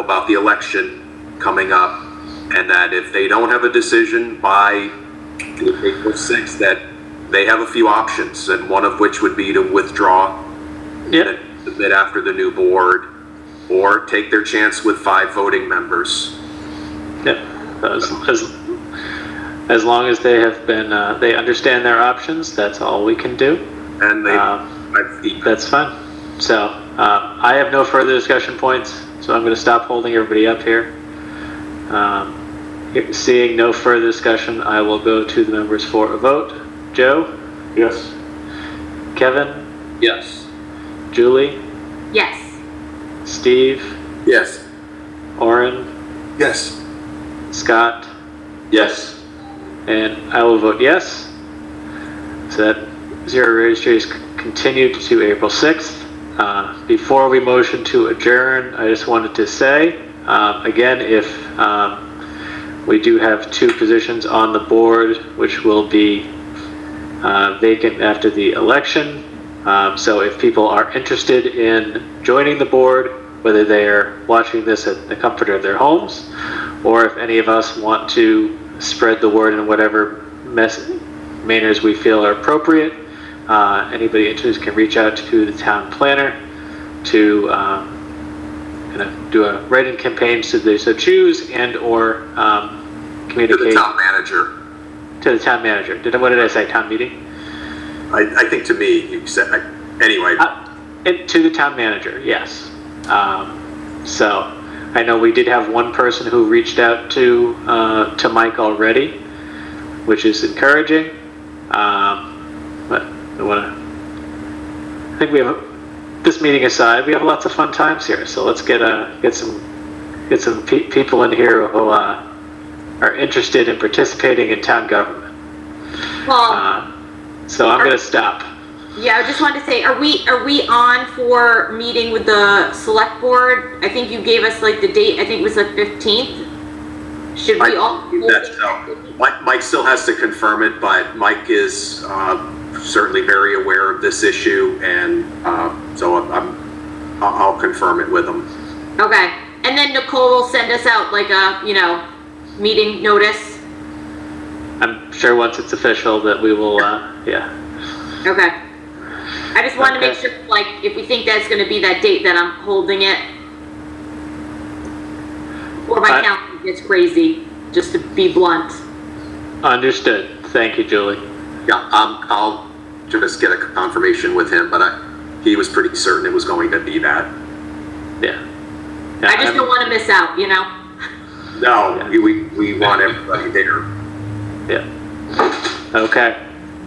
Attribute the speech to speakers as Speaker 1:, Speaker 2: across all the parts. Speaker 1: about the election coming up, and that if they don't have a decision by April 6th, that they have a few options, and one of which would be to withdraw
Speaker 2: Yep,
Speaker 1: and submit after the new board, or take their chance with five voting members.
Speaker 2: yep. As, as, as long as they have been, uh, they understand their options, that's all we can do.
Speaker 1: And they,
Speaker 2: Um,
Speaker 1: I've-
Speaker 2: That's fine. So, uh, I have no further discussion points, so I'm gonna stop holding everybody up here. Um, here- seeing no further discussion, I will go to the members for a vote. Joe,
Speaker 3: Yes.
Speaker 2: Kevin,
Speaker 3: Yes.
Speaker 2: Julie,
Speaker 4: Yes.
Speaker 2: Steve,
Speaker 3: Yes.
Speaker 2: Orin,
Speaker 3: Yes.
Speaker 2: Scott,
Speaker 3: Yes.
Speaker 2: And I will vote yes. So that zero registry is c- continued to April 6th. Uh, Before we motion to adjourn, I just wanted to say, um, again, if um, we do have two positions on the board, which will be uh, vacant after the election. Um, So if people are interested in joining the board, whether they are watching this at the comfort of their homes, or if any of us want to spread the word in whatever mess- manners we feel are appropriate, uh, anybody interested can reach out to the town planner to um, kind of do a write-in campaign so they so choose and/or um,
Speaker 1: to the
Speaker 2: communicate
Speaker 1: town manager.
Speaker 2: to the town manager. Did I, what did I say? Town meeting?
Speaker 1: I, I think to me, you said, I- anyway,
Speaker 2: Uh, it- to the town manager, yes. Um, so I know we did have one person who reached out to uh, to Mike already, which is encouraging. Um, but I want to. I think we have this meeting aside. We have lots of fun times here, so let's get uh, get some get some pe- people in here who uh, are interested in participating in town government.
Speaker 4: Well,
Speaker 2: Uh, so I'm going to stop.
Speaker 4: yeah, I just wanted to say, are we, are we on for meeting with the select board? I think you gave us like the date, I think it was the 15th. Should we all?
Speaker 1: I, that's, no. Mike, Mike still has to confirm it, but Mike is, uh, certainly very aware of this issue, and, uh, so I'm- I'm, I'll, I'll confirm it with him.
Speaker 4: Okay, and then Nicole will send us out like a, you know, meeting notice.
Speaker 2: I'm sure once it's official that we will, uh, yeah.
Speaker 4: Okay. I just wanted to make
Speaker 2: Okay.
Speaker 4: sure, like, if we think that's gonna be that date, that I'm holding it. Or my
Speaker 2: I-
Speaker 4: calendar gets crazy, just to be blunt.
Speaker 2: Understood. Thank you, Julie.
Speaker 1: Yeah, um, I'll just get a confirmation with him, but I, he was pretty certain it was going to be that.
Speaker 2: Yeah. Yeah,
Speaker 4: I just
Speaker 2: I'm-
Speaker 4: don't wanna miss out, you know?
Speaker 1: No, we- we, we want everybody there.
Speaker 2: Yeah. Okay.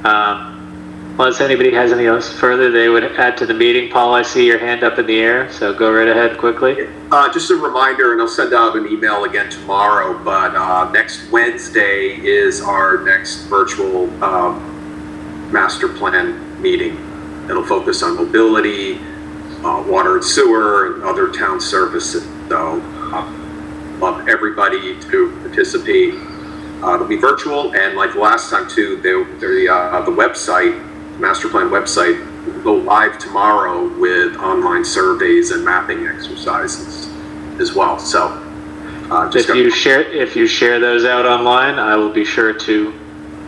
Speaker 2: Um, unless anybody has any else further they would add to the meeting, Paul, I see your hand up in the air, so go right ahead quickly.
Speaker 1: Uh, just a reminder, and I'll send out an email again tomorrow, but, uh, next Wednesday is our next virtual, um, master plan meeting. It'll focus on mobility, uh, water and sewer, and other town services. So, uh, love everybody to participate. Uh, it'll be virtual, and like last time too, the, the, uh, the website, master plan website, will go live tomorrow with online surveys and mapping exercises as well. So, uh, just
Speaker 2: If
Speaker 1: got-
Speaker 2: you share, if you share those out online, I will be sure to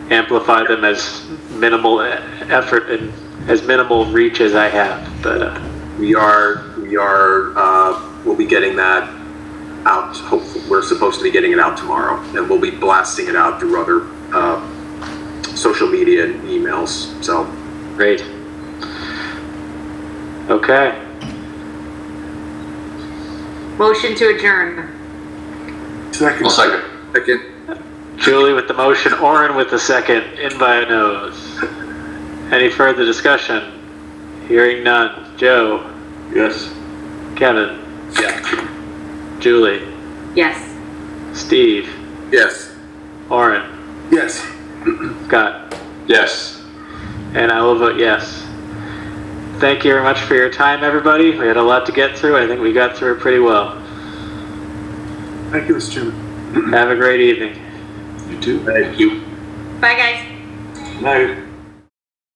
Speaker 2: amplify them as minimal e- effort and as minimal reach as I have, but, uh,
Speaker 1: We are, we are, uh, we'll be getting that out, hopefully, we're supposed to be getting it out tomorrow, and we'll be blasting it out through other, uh, social media and emails, so.
Speaker 2: Great. Okay,
Speaker 4: Motion to adjourn.
Speaker 3: Second.
Speaker 1: second. Second.
Speaker 2: Julie with the motion, Orin with the second, in by a nose. Any further discussion? Hearing none. Joe,
Speaker 3: Yes.
Speaker 2: Kevin,
Speaker 1: Yeah.
Speaker 2: Julie,
Speaker 4: Yes.
Speaker 2: Steve,
Speaker 1: Yes.
Speaker 2: Orin,
Speaker 3: Yes.
Speaker 2: Scott,
Speaker 3: Yes.
Speaker 2: and I will vote yes. Thank you very much for your time, everybody. We had a lot to get through. I think we got through it pretty well.
Speaker 3: Thank you, Mr. Chairman.
Speaker 2: Have a great evening.
Speaker 3: You too.
Speaker 1: Thank you.
Speaker 4: Bye, guys.
Speaker 3: Night.